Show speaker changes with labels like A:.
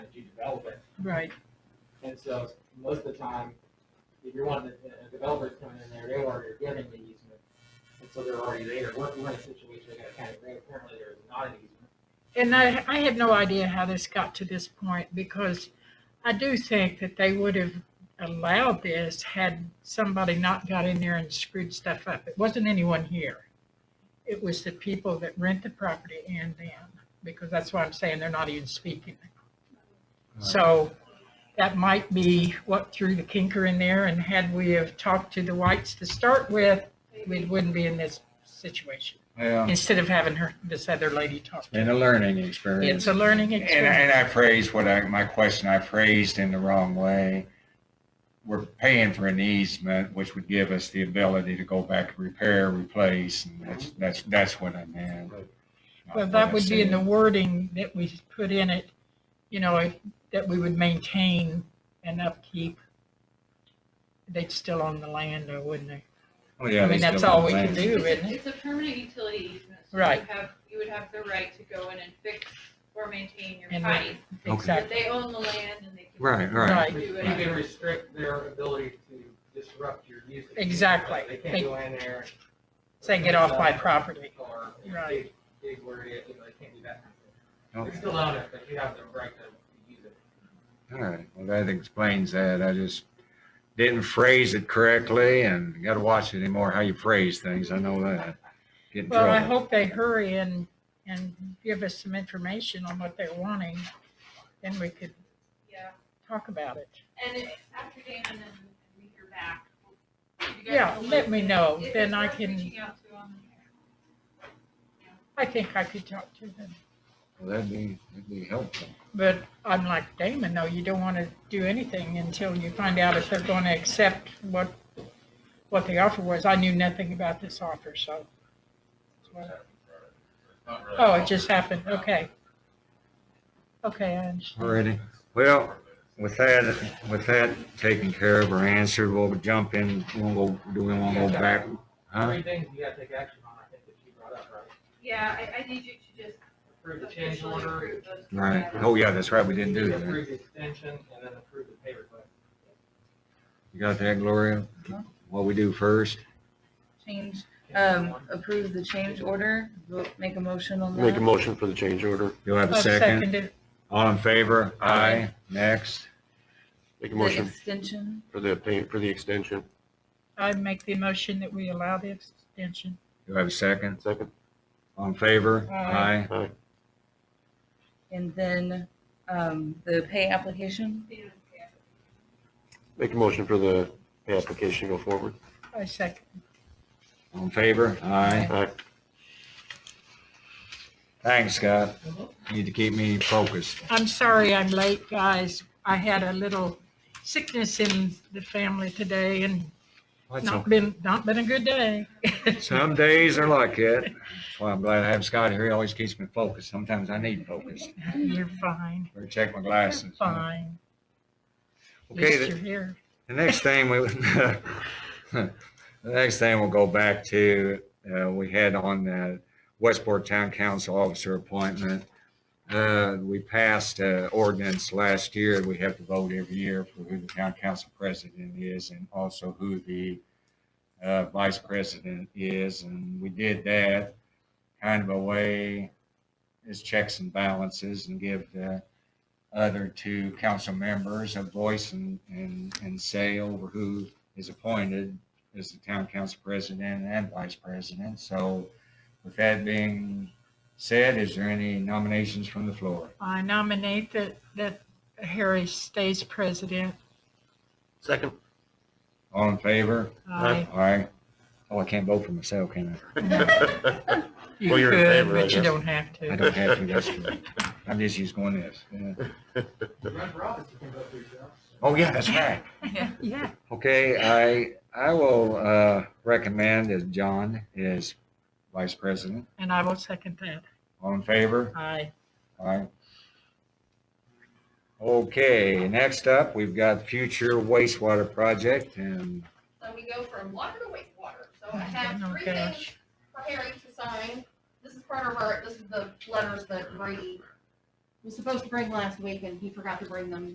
A: developer.
B: Right,
A: And so most of the time, if you're one of the, a developer's coming in there, they already are giving the easement. And so they're already there. We're, we're in a situation, we got a county road, apparently there is not an easement.
B: and I, I had no idea how this got to this point, because I do think that they would have allowed this had somebody not got in there and screwed stuff up. It wasn't anyone here. It was the people that rent the property and them, because that's why I'm saying they're not even speaking. So that might be what threw the kinker in there, and had we have talked to the whites to start with, we wouldn't be in this situation,
C: Yeah,
B: instead of having her, this other lady talk to
C: and a
B: us.
C: learning
B: It's
C: experience.
B: a learning
C: And, I-
B: experience.
C: and I phrased what I, my question, I phrased in the wrong way. We're paying for an easement, which would give us the ability to go back and repair, replace, and that's, that's, that's what I meant. not
B: Well,
C: what
B: that
C: I
B: would be in the
C: said.
B: wording that we put in it, you know, if- that we would maintain and upkeep. They'd still own the land, though, wouldn't they?
C: Oh, yeah,
B: I mean,
C: they
B: that's
C: still
B: all
C: have
B: we can
C: land.
B: do. isn't it?
D: It's a permanent utility easement. so
B: Right.
D: You have, you would have the right to go in and fix or maintain your
B: And-
D: pipe.
C: Okay.
D: But
B: Exactly,
D: they own the land and they can.
C: Right, right.
B: Right.
D: Do
A: You
D: it.
A: can restrict their ability to disrupt your use. of the easement.
B: Exactly.
A: They can't go in there.
B: say get off my property.
A: Or dig,
B: Right.
A: dig where it is, you know, they can't do that. kind of thing. They
C: Okay.
A: still own it, but you have the right to use it.
C: All right, well, that explains that. I just didn't phrase it correctly and you gotta watch it anymore, how you phrase things. I know that. Get in
B: Well, I
C: trouble.
B: hope they hurry and, and give us some information on what they're wanting, then we could
D: Yeah,
B: talk about it.
D: and it- after Damon and and we hear back. you guys
B: Yeah,
D: will
B: let me
D: look-
B: know,
D: it-
B: then
D: it's
B: I
D: worth
B: can-
D: reaching out to them.
B: I think I could talk to them,
C: Well, That'd be, that'd be helpful.
B: but I'm like Damon, though, you don't want to do anything until you find out if they're going to accept what, what the offer was. I knew nothing about this offer, so. Oh, it just happened, okay. Okay, I understand.
C: All righty. Well, with that, with that taken care of or answered, we'll jump in, we'll go, do we wanna go back? Huh?
A: Three things you gotta take action on, I think that you brought up, right?
D: Yeah, I, I need you to just
A: Approve the change
D: officially
A: order.
D: approve those.
C: Right.
D: plans.
C: Oh, yeah, that's right. We didn't do that.
A: Approve the extension and then approve the pay request.
C: You got that, Gloria? What we do first?
E: Change,
A: Can you
E: um,
A: one?
E: approve the change order, vote, make a motion on
F: Make a
E: that.
F: motion for the change order.
C: Do I have a
B: I'll
C: second?
B: second it.
C: All in favor? Aye. Next.
F: Make a
E: The
F: motion
E: extension,
F: for the pay, for the extension.
B: I make the motion that we allow the extension.
C: Do I have a second?
F: Second,
C: All in favor?
B: Aye.
F: aye.
E: and then, um, the pay application,
D: Yeah, yeah.
F: Make a motion for the pay application to go forward.
B: I second.
C: All in favor? Aye.
F: Aye.
C: Thanks, Scott. Need to keep me focused.
B: I'm sorry I'm late, guys. I had a little sickness in the family today and
C: That's
B: not
C: all.
B: been, not been a good day.
C: Some days are like that. That's why I'm glad I have Scott here. He always keeps me focused. Sometimes I need focus.
B: You're
G: Mm-hmm.
B: fine,
C: Better check my
B: you're
C: glasses.
B: fine. At
C: Okay,
B: least
C: the-
B: you're here.
C: The next thing we, the next thing we'll go back to, uh, we had on the Westport Town Council Officer appointment. Uh, we passed, uh, ordinance last year. We have to vote every year for who the town council president is and also who the, uh, vice president is. And we did that kind of a way as checks and balances and give the other two council members a voice and, and, and say over who is appointed as the town council president and vice president. So with that being said, is there any nominations from the floor?
B: I nominate that, that Harry stays president.
F: Second.
C: All in favor?
B: I,
C: Aye. Oh, I can't vote for myself, can
B: you
F: Well, you're in
B: could,
F: favor, I
B: but you
F: guess.
B: don't have
C: I? I
B: to.
C: don't have to, that's true. I'm just used to going this. yeah.
A: Run for office, you can vote for yourself.
C: Oh, yeah, that's right.
B: Yeah,
C: Okay, I, I will, uh, recommend that John is vice president.
B: and I will second that.
C: All in favor?
B: I,
C: Alright. Okay, next up, we've got future wastewater project and
G: So we go from water to wastewater. So I have
B: Oh,
G: three
B: gosh.
G: things for Harry to sign. This is part of our, this is the letters that Brady was supposed to bring last week and he forgot to bring them